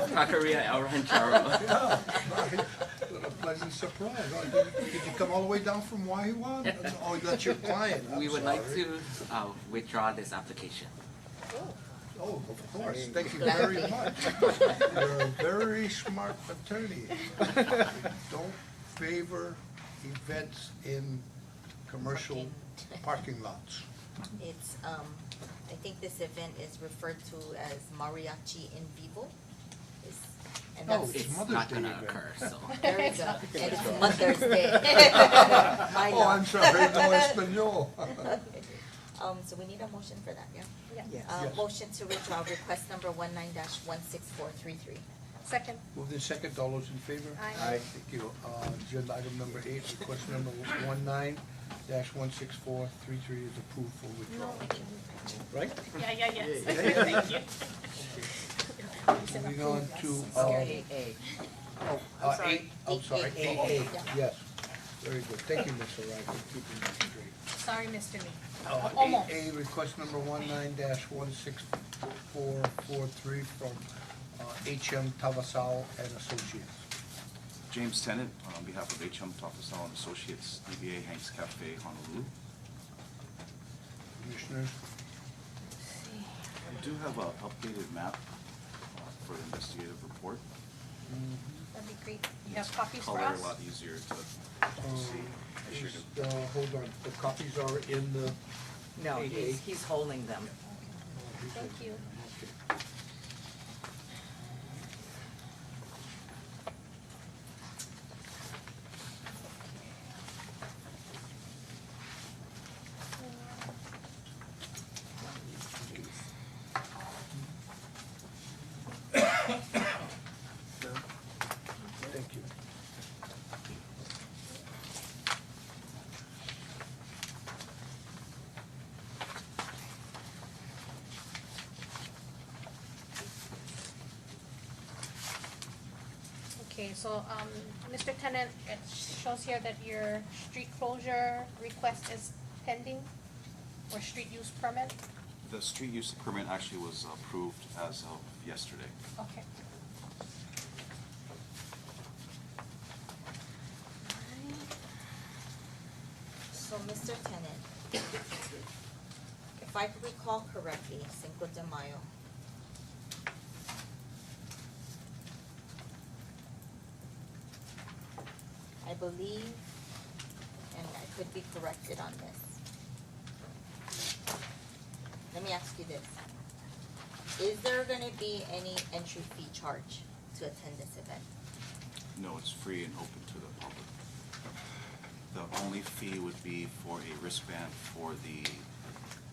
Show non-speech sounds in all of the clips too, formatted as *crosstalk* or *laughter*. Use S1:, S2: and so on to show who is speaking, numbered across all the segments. S1: Taqueria El Ranchero.
S2: Yeah, what a pleasant surprise. Oh, Did did you come all the way down from Waiwan? That's- Oh, that's your client, I'm
S1: We would like
S2: sorry.
S1: to uh, withdraw this application.
S2: Oh, of course, thank you very much.
S1: *laughs*
S2: You're a very smart attorney. Don't favor events in commercial parking lots.
S3: It's, um, I think this event is referred to as mariachi in vivo. It's- And
S2: Oh,
S3: that's, *laughs*
S2: It's
S1: It's
S2: Mother's
S1: not
S2: Day
S1: gonna
S2: event.
S1: occur, so.
S3: there you go, and it's
S2: *laughs*
S3: Mother's Day. I
S2: Oh, I'm
S3: know.
S2: sorry,
S3: *laughs*
S2: no Espanol. *laughs*
S3: Um, so we need a motion for that, yeah?
S4: Yes.
S3: Uh,
S2: Yes.
S3: motion to withdraw request number one nine dash one six four three three.
S4: Second.
S2: Moved in second, all those in favor?
S4: Aye.
S2: Aye. Thank you. Uh, agenda item number eight, request number one nine dash one six four three three is approved for withdrawal. Right?
S4: Yeah, yeah, yes. *laughs*
S2: Yeah, yeah, yeah.
S4: Thank you.
S2: Moving on to, uh,
S3: Scary.
S2: oh, uh,
S4: sorry.
S2: eight, I'm sorry,
S3: Eight, eight,
S2: eight
S3: eight.
S2: A, yes. Very good. Thank you, Ms. Arai, for keeping that straight.
S4: Sorry, Mr. Me.
S2: Uh,
S4: Almost.
S2: Eight A, request number one nine dash one six four four three from, uh, H M Tavasal and Associates.
S5: James Tennant, on behalf of HM Topasal and Associates, DBA Hanks Cafe Honolulu.
S2: Commissioners,
S5: I do have an updated map uh, for the investigative report.
S4: That'd be great. You have
S5: It's
S4: copies for
S5: Color a
S4: us?
S5: lot easier to
S2: um,
S5: see. I should
S2: is,
S5: have-
S2: uh, hold on, the copies are in the uh,
S6: No,
S2: Eight
S6: he's,
S2: A.
S6: he's holding them.
S4: Thank you.
S2: Okay. Thank you.
S4: Okay, so, um, Mr. Tennant, it shows here that your street closure request is pending or street use permit?
S5: The street use permit actually was approved as of yesterday.
S4: Okay.
S3: So, Mr. Tennant, if I recall correctly, Cinco de Mayo, I believe, and I could be corrected on this. Let me ask you this. Is there gonna be any entry fee charge to attend this event?
S5: No, it's free and open to the public. The only fee would be for a wristband for the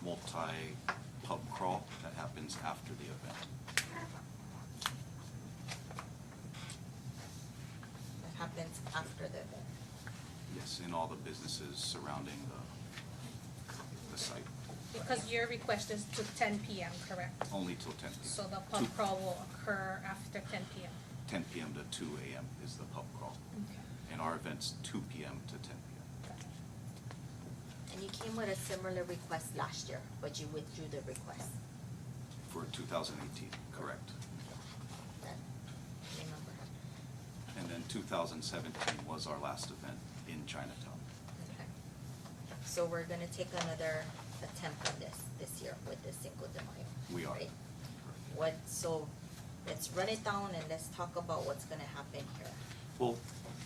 S5: multi-pub crawl that happens after the event.
S3: That happens after the event.
S5: Yes, in all the businesses surrounding the, the site,
S4: Because your request is to ten PM, correct?
S5: only till ten p.m.
S4: So the pub
S5: Two-
S4: crawl will occur after ten PM?
S5: Ten p.m. to two a.m. is the pub crawl,
S4: Okay.
S5: and our event's two p.m. to ten p.m.
S3: And you came with a similar request last year, but you withdrew the request.
S5: for two thousand eighteen, correct?
S3: That, remember?
S5: And then two thousand seventeen was our last event in Chinatown.
S3: Okay. So we're gonna take another attempt on this, this year with the Cinco de Mayo.
S5: We are.
S3: right? What, so, let's run it down and let's talk about what's gonna happen here.
S5: Well,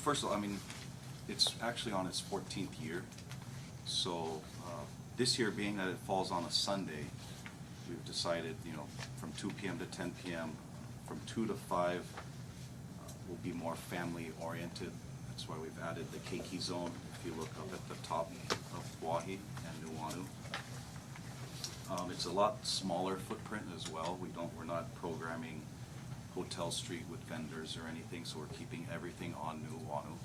S5: first of all, I mean, it's actually on its fourteenth year. So, uh, this year being that it falls on a Sunday, we've decided, you know, from two PM to ten PM, from two to five uh, will be more family oriented. That's why we've added the keiki zone, if you look up at the top of Wahi and Nuuanu. Um, it's a lot smaller footprint as well. We don't, we're not programming Hotel Street with vendors or anything, so we're keeping everything on Nuuanu.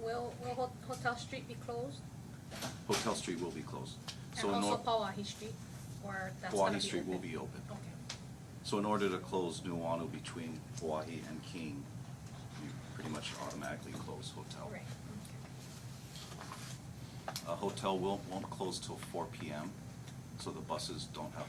S4: Will, will Ho- Hotel Street be closed?
S5: Hotel Street will be closed. So
S4: And
S5: in
S4: also
S5: or-
S4: Pauahi Street, or that's gonna be
S5: Pauahi Street will
S4: open?
S5: be open.
S4: Okay.
S5: So in order to close Nuuanu between Hawaii and King, you pretty much automatically close hotel.
S4: Right, okay.
S5: A hotel will, won't close till four PM, so the buses don't have